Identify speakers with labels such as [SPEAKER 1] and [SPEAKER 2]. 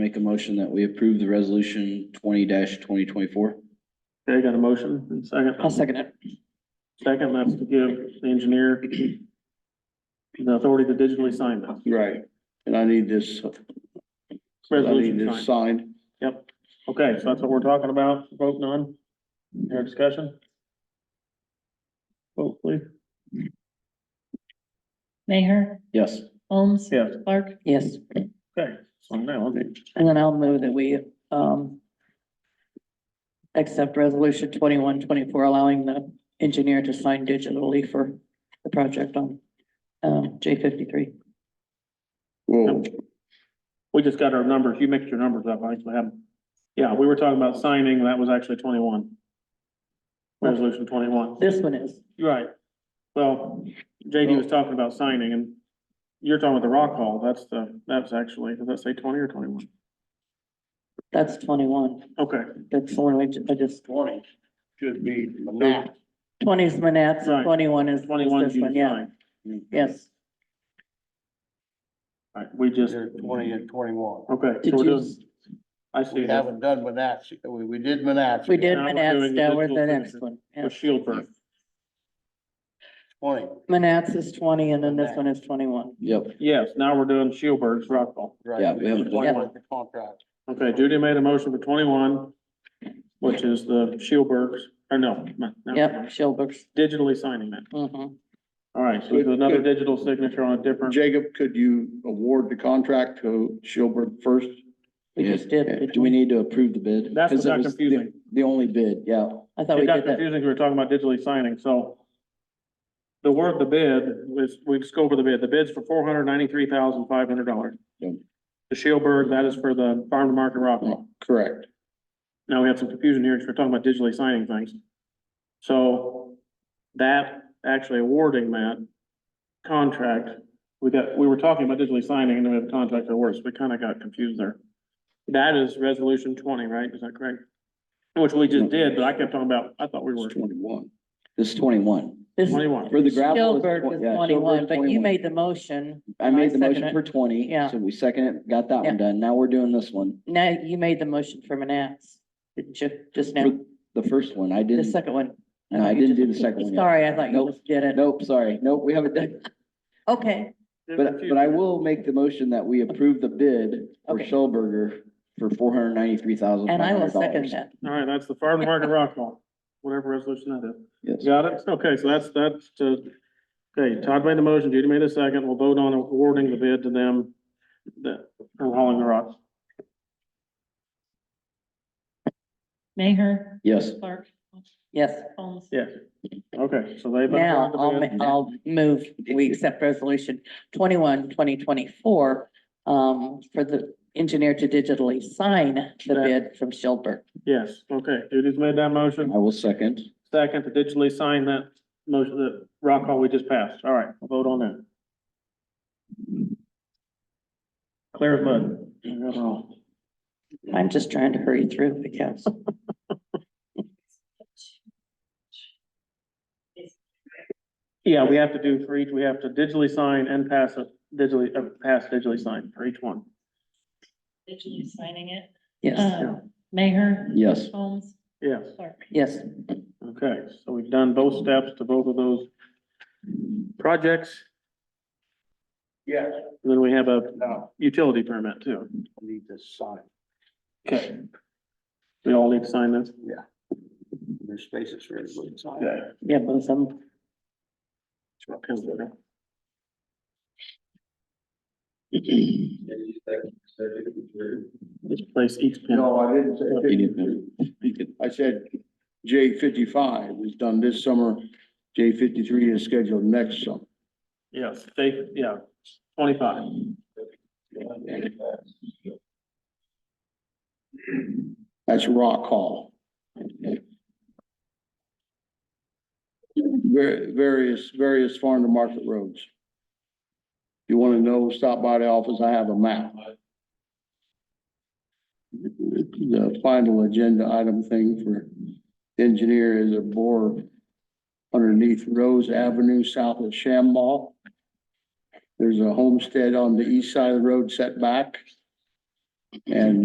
[SPEAKER 1] Make a motion that we approve the resolution twenty twenty twenty-four.
[SPEAKER 2] Okay, got a motion and second.
[SPEAKER 3] I'll second it.
[SPEAKER 2] Second, that's to give the engineer the authority to digitally sign that.
[SPEAKER 1] Right, and I need this, I need
[SPEAKER 2] Resolution
[SPEAKER 1] this
[SPEAKER 2] signed.
[SPEAKER 1] signed.
[SPEAKER 2] Yep. Okay, so that's what we're talking about. Vote none. Your discussion? Vote please.
[SPEAKER 3] Mayor,
[SPEAKER 1] Yes,
[SPEAKER 3] Holmes.
[SPEAKER 2] Yes.
[SPEAKER 3] Clark. Yes,
[SPEAKER 2] Okay, so now, okay.
[SPEAKER 3] and then I'll move that we, um, accept resolution twenty-one, twenty-four, allowing the engineer to sign digitally for the project on, um, J fifty-three.
[SPEAKER 1] well,
[SPEAKER 2] We just got our numbers. You mixed your numbers up. I actually have them. Yeah, we were talking about signing. That was actually twenty-one. Resolution twenty-one.
[SPEAKER 3] This one is,
[SPEAKER 2] You're Right. Well, JD was talking about signing and you're talking about the rock hall. That's the, that's actually, does that say twenty or twenty-one?
[SPEAKER 3] that's twenty-one.
[SPEAKER 2] Okay,
[SPEAKER 3] That's the one we ju- I just,
[SPEAKER 4] Twenty should be
[SPEAKER 2] Nah.
[SPEAKER 3] twenty is Manats,
[SPEAKER 2] Right.
[SPEAKER 3] twenty-one is is
[SPEAKER 2] twenty-one
[SPEAKER 3] this
[SPEAKER 2] is you
[SPEAKER 3] one, yeah,
[SPEAKER 2] sign.
[SPEAKER 3] yes.
[SPEAKER 2] All right, we just, okay.
[SPEAKER 4] either twenty and twenty-one.
[SPEAKER 2] so
[SPEAKER 3] Did
[SPEAKER 2] we're
[SPEAKER 3] you,
[SPEAKER 2] doing- I
[SPEAKER 4] We
[SPEAKER 2] see that.
[SPEAKER 4] haven't done Manassas, we, we did Manassas.
[SPEAKER 3] we did
[SPEAKER 2] Now we're doing
[SPEAKER 3] Manats,
[SPEAKER 2] the
[SPEAKER 3] now we're
[SPEAKER 2] digital
[SPEAKER 3] the next
[SPEAKER 2] signature.
[SPEAKER 3] one. yeah.
[SPEAKER 2] With Shieldburg.
[SPEAKER 4] Twenty,
[SPEAKER 3] Manats is twenty and then this one is twenty-one.
[SPEAKER 1] yep,
[SPEAKER 2] Yes, now we're doing Shieldburg's rock hall.
[SPEAKER 4] right.
[SPEAKER 1] Yeah, we haven't done-
[SPEAKER 4] Twenty-one the contract.
[SPEAKER 2] Okay, Judy made a motion for twenty-one, which is the Shieldburg's, or no. no, no.
[SPEAKER 3] Yep, Shilbergs.
[SPEAKER 2] Digitally signing that.
[SPEAKER 3] Mhm.
[SPEAKER 2] All right, so we do another digital signature on a different.
[SPEAKER 5] Jacob, could you award the contract to Shilberg first?
[SPEAKER 3] We just did. didn't
[SPEAKER 1] do we need to approve the bid?
[SPEAKER 2] That's what
[SPEAKER 1] 'Cause it
[SPEAKER 2] got
[SPEAKER 1] was the-
[SPEAKER 2] confusing.
[SPEAKER 1] The only bid, yeah,
[SPEAKER 3] I thought we
[SPEAKER 2] It got
[SPEAKER 3] did that.
[SPEAKER 2] confusing, 'cause we were talking about digitally signing, so. The word, the bid, was, we just go over the bid, the bid's for four hundred ninety-three thousand five hundred dollars.
[SPEAKER 1] Yep.
[SPEAKER 2] The Shieldburg, that is for the farm to market rock
[SPEAKER 3] Oh.
[SPEAKER 2] wall.
[SPEAKER 1] correct.
[SPEAKER 2] Now we have some confusion here, because we're talking about digitally signing things. So that, actually awarding that contract, we got, we were talking about digitally signing and then we have contract awards, we kind of got confused there. That is resolution twenty, right? Is that correct? Which we just did, but I kept talking about, I thought we were
[SPEAKER 1] It's twenty-one. This is twenty-one.
[SPEAKER 3] This
[SPEAKER 2] twenty-one.
[SPEAKER 1] For the gravel. it's
[SPEAKER 3] Shilberg
[SPEAKER 1] twen- yeah,
[SPEAKER 3] was
[SPEAKER 1] Shilberg's
[SPEAKER 3] twenty-one, but you made the motion.
[SPEAKER 1] I made the
[SPEAKER 3] I second
[SPEAKER 1] motion
[SPEAKER 3] it.
[SPEAKER 1] for twenty,
[SPEAKER 3] Yeah.
[SPEAKER 1] so we second it, got that
[SPEAKER 3] Yeah.
[SPEAKER 1] one done. Now we're doing this one.
[SPEAKER 3] Now you made the motion for Manats, didn't you? Just now,
[SPEAKER 1] For the first one, I
[SPEAKER 3] the
[SPEAKER 1] didn't,
[SPEAKER 3] second one.
[SPEAKER 1] no, I
[SPEAKER 3] you
[SPEAKER 1] didn't
[SPEAKER 3] just-
[SPEAKER 1] do the second one yet.
[SPEAKER 3] Sorry, I thought you
[SPEAKER 1] Nope.
[SPEAKER 3] just did it.
[SPEAKER 1] Nope, sorry. Nope, we haven't done,
[SPEAKER 3] Okay,
[SPEAKER 1] but, but I will make the motion that we approve the bid for
[SPEAKER 3] Okay.
[SPEAKER 1] Shellberger for four hundred ninety-three thousand five
[SPEAKER 3] and I will
[SPEAKER 1] hundred dollars.
[SPEAKER 3] second that.
[SPEAKER 2] All right, that's the farm to market rock wall, whatever resolution that is.
[SPEAKER 1] Yes.
[SPEAKER 2] Got it? Okay, so that's, that's, uh, okay, Todd made the motion, Judy made a second, we'll vote on awarding the bid to them that are hauling the rocks.
[SPEAKER 3] Mayor
[SPEAKER 1] Yes,
[SPEAKER 3] Clark. Yes.
[SPEAKER 2] Yes. Okay, so they've.
[SPEAKER 3] Now, I'll,
[SPEAKER 2] awarded the bid.
[SPEAKER 3] ma- I'll move, we accept resolution 21 2024 um, for the engineer to digitally sign the bid from Shilberg.
[SPEAKER 2] Yes, okay, Judy's made that motion,
[SPEAKER 1] I will second.
[SPEAKER 2] second to digitally sign that motion, that rock hall we just passed. All right, we'll vote on that. Clear as mud.
[SPEAKER 5] Oh.
[SPEAKER 3] I'm just trying to hurry through because.
[SPEAKER 2] Yeah, we have to do for each, we have to digitally sign and pass a digitally, uh, pass digitally sign for each one.
[SPEAKER 6] Digitally signing it.
[SPEAKER 3] Yes,
[SPEAKER 2] yeah.
[SPEAKER 6] Um, Mayer.
[SPEAKER 1] Yes.
[SPEAKER 6] Holmes.
[SPEAKER 2] Yes,
[SPEAKER 6] Clark.
[SPEAKER 3] yes.
[SPEAKER 2] okay, so we've done both steps to both of those projects.
[SPEAKER 4] Yeah,
[SPEAKER 2] Then we have a
[SPEAKER 4] no,
[SPEAKER 2] utility permit too.
[SPEAKER 4] I need to sign,
[SPEAKER 2] Okay. We all need to sign this.
[SPEAKER 4] there's spaces for everybody to sign.
[SPEAKER 2] Okay.
[SPEAKER 3] Yeah, both of them.
[SPEAKER 2] Just place each pin.
[SPEAKER 5] No, I didn't say
[SPEAKER 1] You need
[SPEAKER 5] fifty-three. I said J fifty-five is done this summer, J fifty-three is scheduled next summer.
[SPEAKER 2] Yes, they, yeah, twenty-five.
[SPEAKER 5] That's Rock Hall. Ver- Various, various farm to market roads. You want to know, stop by the office, I have a map. The final agenda item thing for engineer is a bore underneath Rose Avenue south of Shamball. There's a homestead on the east side of the road set back. And